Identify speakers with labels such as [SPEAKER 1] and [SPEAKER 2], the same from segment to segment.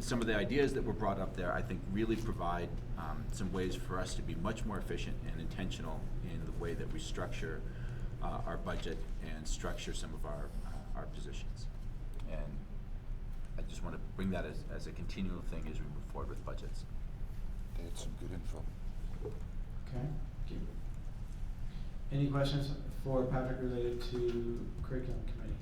[SPEAKER 1] some of the ideas that were brought up there, I think, really provide um, some ways for us to be much more efficient and intentional in the way that we structure uh, our budget and structure some of our, uh, our positions. And I just want to bring that as, as a continual thing as we move forward with budgets.
[SPEAKER 2] They had some good info.
[SPEAKER 3] Okay. Any questions for Patrick related to curriculum committee?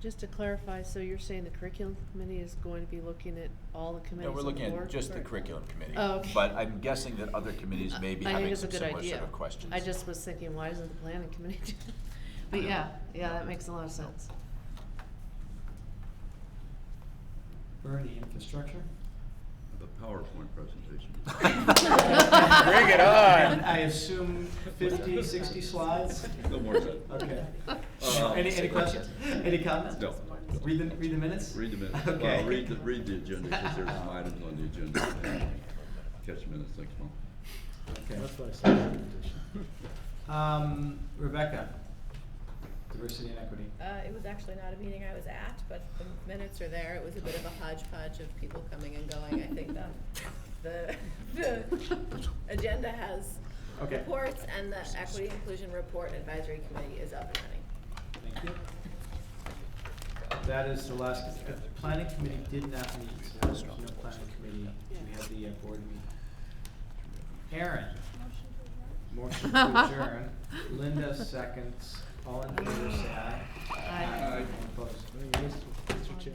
[SPEAKER 4] Just to clarify, so you're saying the curriculum committee is going to be looking at all the committees
[SPEAKER 1] No,
[SPEAKER 4] on
[SPEAKER 1] we're
[SPEAKER 4] the
[SPEAKER 1] looking at
[SPEAKER 4] board?
[SPEAKER 1] just the
[SPEAKER 4] Right.
[SPEAKER 1] curriculum committee.
[SPEAKER 4] Oh, okay.
[SPEAKER 1] But I'm guessing that other committees may be
[SPEAKER 4] I think
[SPEAKER 1] having
[SPEAKER 4] it's a
[SPEAKER 1] some
[SPEAKER 4] good
[SPEAKER 1] similar
[SPEAKER 4] idea.
[SPEAKER 1] sort of questions.
[SPEAKER 4] I just was thinking, why isn't the planning committee? doing it? But
[SPEAKER 1] Yeah.
[SPEAKER 4] yeah, yeah, that makes a lot of sense.
[SPEAKER 3] Bernie, infrastructure?
[SPEAKER 5] The PowerPoint presentation.
[SPEAKER 2] Bring it on.
[SPEAKER 3] I assume 50, 60 slides?
[SPEAKER 5] No more than that.
[SPEAKER 3] Okay.
[SPEAKER 5] Uh,
[SPEAKER 3] Any, any questions? Any comments?
[SPEAKER 5] No.
[SPEAKER 3] Read the, read the minutes?
[SPEAKER 5] Read the minutes,
[SPEAKER 3] Okay.
[SPEAKER 5] well, read the, read the agenda, because there's some items on the agenda. Catch minutes next month.
[SPEAKER 3] Okay. Um, Rebecca, diversity and equity.
[SPEAKER 6] Uh, it was actually not a meeting I was at, but the minutes are there. It was a bit of a hodgepodge of people coming and going. I think that the, the agenda has
[SPEAKER 3] Okay.
[SPEAKER 6] reports and the Equity Inclusion Report Advisory Committee is up and running.
[SPEAKER 3] Thank you. That is the last, the planning committee did not meet, so there's no planning committee, we had the uh, board meeting. Aaron? Motion to adjourn, Linda seconds, all in favor say aye.
[SPEAKER 4] Aye.
[SPEAKER 3] All opposed?
[SPEAKER 7] Mr. Chair,